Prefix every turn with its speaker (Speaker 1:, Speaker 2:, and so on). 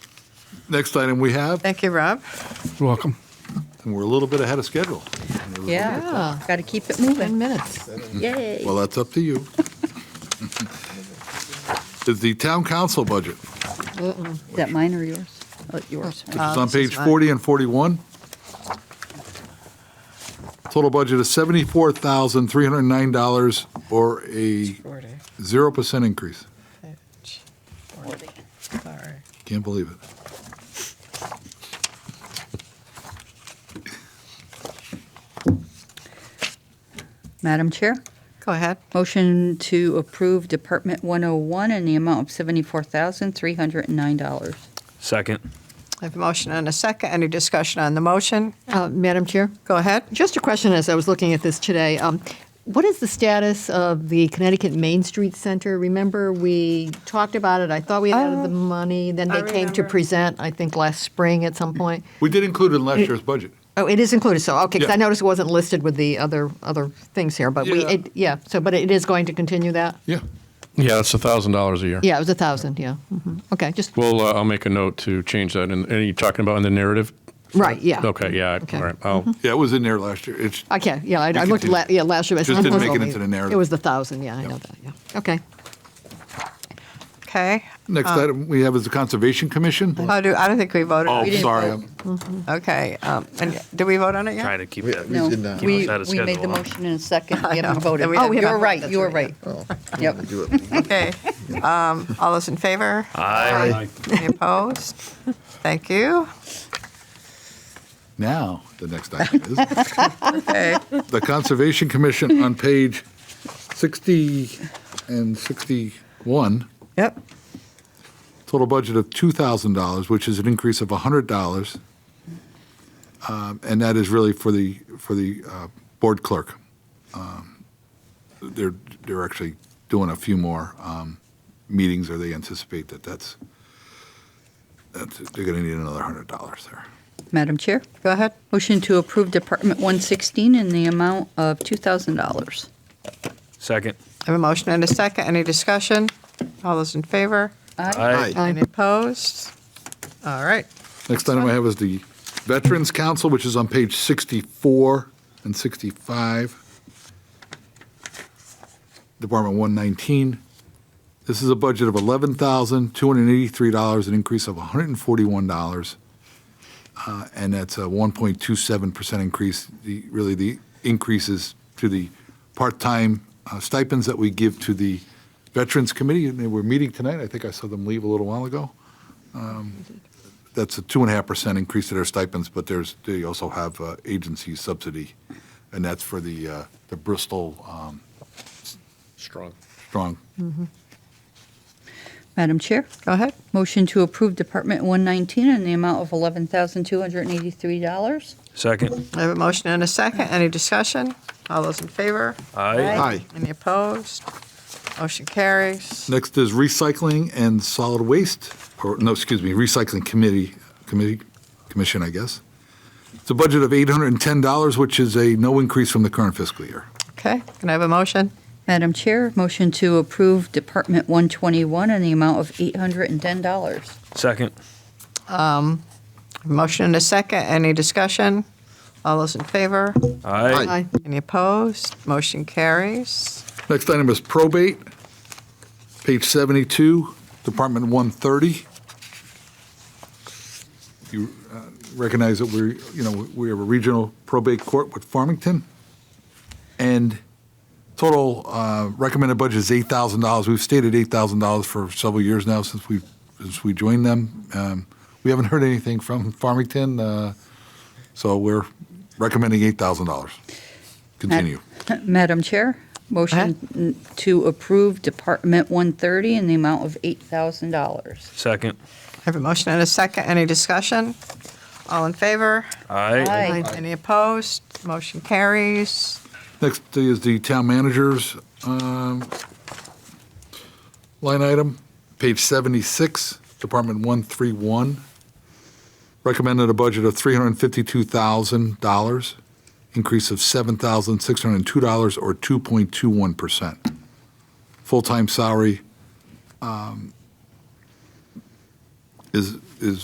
Speaker 1: Next item we have,
Speaker 2: Thank you, Rob.
Speaker 3: You're welcome.
Speaker 1: and we're a little bit ahead of schedule.
Speaker 2: Yeah.
Speaker 4: Got to keep it
Speaker 2: 10
Speaker 4: moving.
Speaker 2: minutes.
Speaker 4: Yay.
Speaker 1: Well, that's up to you. Is the town council budget,
Speaker 4: Is that mine or yours? Oh, yours.
Speaker 1: which is
Speaker 2: Uh,
Speaker 1: on
Speaker 2: this is
Speaker 1: page
Speaker 2: mine.
Speaker 1: 40 and 41. Total budget is $74,309, or a 0% increase.
Speaker 2: Sorry.
Speaker 1: Can't believe it.
Speaker 4: Madam Chair,
Speaker 2: Go ahead.
Speaker 4: motion to approve Department 101 in the amount of $74,309.
Speaker 5: Second.
Speaker 2: I have a motion and a second. Any discussion on the motion?
Speaker 6: Uh, Madam Chair,
Speaker 2: Go ahead.
Speaker 6: just a question as I was looking at this today. Um, What is the status of the Connecticut Main Street Center? Remember, we talked about it, I thought we had added the money, then they came to present, I think, last spring at some point.
Speaker 1: We did include it in last year's budget.
Speaker 6: Oh, it is included, so, okay, because
Speaker 1: Yeah.
Speaker 6: I noticed it wasn't listed with the other, other things here, but we,
Speaker 1: Yeah.
Speaker 6: it- yeah, so, but it is going to continue that?
Speaker 1: Yeah.
Speaker 3: Yeah, that's a thousand dollars a year.
Speaker 6: Yeah, it was a 1,000, yeah. Mhm. Okay, just,
Speaker 3: Well, uh, I'll make a note to change that. And, and are you talking about in the narrative?
Speaker 6: right, yeah.
Speaker 3: Okay, yeah,
Speaker 6: Okay. Mm-hmm.
Speaker 3: all right. I'll,
Speaker 1: Yeah, it was in there last year. It's,
Speaker 6: I can't, yeah, I
Speaker 1: You
Speaker 6: I looked,
Speaker 1: continue.
Speaker 6: la- yeah, last year. but I
Speaker 1: Just
Speaker 6: said
Speaker 1: didn't
Speaker 6: it was
Speaker 1: make it
Speaker 6: only-
Speaker 1: into the narrative.
Speaker 6: It was the 1,000, yeah, I know that, yeah. Okay.
Speaker 2: Okay.
Speaker 1: next item we have is the Conservation Commission.
Speaker 2: Oh, do, uh, I don't think we voted.
Speaker 1: Oh,
Speaker 2: We didn't
Speaker 1: sorry.
Speaker 2: vote.
Speaker 1: I'm-
Speaker 2: Okay. um, And did we vote on it yet?
Speaker 5: Try to keep it.
Speaker 4: No,
Speaker 7: did not.
Speaker 4: we,
Speaker 5: Keep us out of
Speaker 4: we made the
Speaker 5: schedule, huh?
Speaker 4: motion in a second.
Speaker 2: I
Speaker 4: We
Speaker 2: know.
Speaker 4: haven't voted. Oh,
Speaker 2: We haven't.
Speaker 4: You're
Speaker 2: That's
Speaker 4: right, you're
Speaker 2: right.
Speaker 4: right. Yep.
Speaker 7: Do it.
Speaker 2: Okay. Um, All those in favor?
Speaker 5: Aye.
Speaker 2: Any opposed? Thank you.
Speaker 1: Now, the next item is
Speaker 2: Okay.
Speaker 1: the Conservation Commission on page 60 and 61,
Speaker 2: Yep.
Speaker 1: total budget of $2,000, which is an increase of $100. Um, And that is really for the, for the uh, board clerk. Um, They're, they're actually doing a few more um, meetings, or they anticipate that that's, that's, they're going to need another $100 there.
Speaker 4: Madam Chair,
Speaker 2: Go ahead.
Speaker 4: motion to approve Department 116 in the amount of $2,000.
Speaker 5: Second.
Speaker 2: I have a motion and a second. Any discussion? All those in favor?
Speaker 5: Aye.
Speaker 6: Aye.
Speaker 2: Any opposed? All right.
Speaker 1: Next item I have is the Veterans Council, which is on page 64 and 65, Department 119. This is a budget of $11,283, an increase of $141, uh, and that's a 1.27% increase. The- Really, the increases to the part-time uh, stipends that we give to the Veterans Committee, and they were meeting tonight. I think I saw them leave a little while ago that's a two and a half percent increase to their stipends, but there's, they also have uh, agency subsidy, and that's for the, uh, the Bristol um,
Speaker 3: Strong.
Speaker 1: Strong.
Speaker 4: Madam Chair,
Speaker 2: Go ahead.
Speaker 4: motion to approve Department 119 in the amount of $11,283.
Speaker 5: Second.
Speaker 2: I have a motion and a second. Any discussion? All those in favor?
Speaker 5: Aye.
Speaker 1: Aye.
Speaker 2: Any opposed? Motion carries.
Speaker 1: Next is recycling and solid waste, or, no, excuse me, recycling committee, committee, commission, I guess. It's a budget of $810, which is a no increase from the current fiscal year.
Speaker 2: Okay, can I have a motion?
Speaker 4: Madam Chair, motion to approve Department 121 in the amount of $810.
Speaker 5: Second.
Speaker 2: Motion and a second, any discussion? All those in favor?
Speaker 5: Aye.
Speaker 6: Aye.
Speaker 2: Any opposed? Motion carries.
Speaker 1: Next item is probate, page 72, Department 130. You uh, recognize that we're, you know, we have a regional probate court with Farmington, and total uh, recommended budget is $8,000. We've stated $8,000 for several years now since we, since we joined them. Um, We haven't heard anything from Farmington, uh, so we're recommending $8,000. Continue.
Speaker 4: Madam Chair, motion to approve Department 130 in the amount of $8,000.
Speaker 5: Second.
Speaker 2: I have a motion and a second, any discussion? All in favor?
Speaker 5: Aye.
Speaker 4: Aye.
Speaker 2: Any opposed? Motion carries.
Speaker 1: Next is the town manager's um, line item, page 76, Department 131. Recommended a budget of $352,000, increase of $7,602 or 2.21%. Full-time salary um, is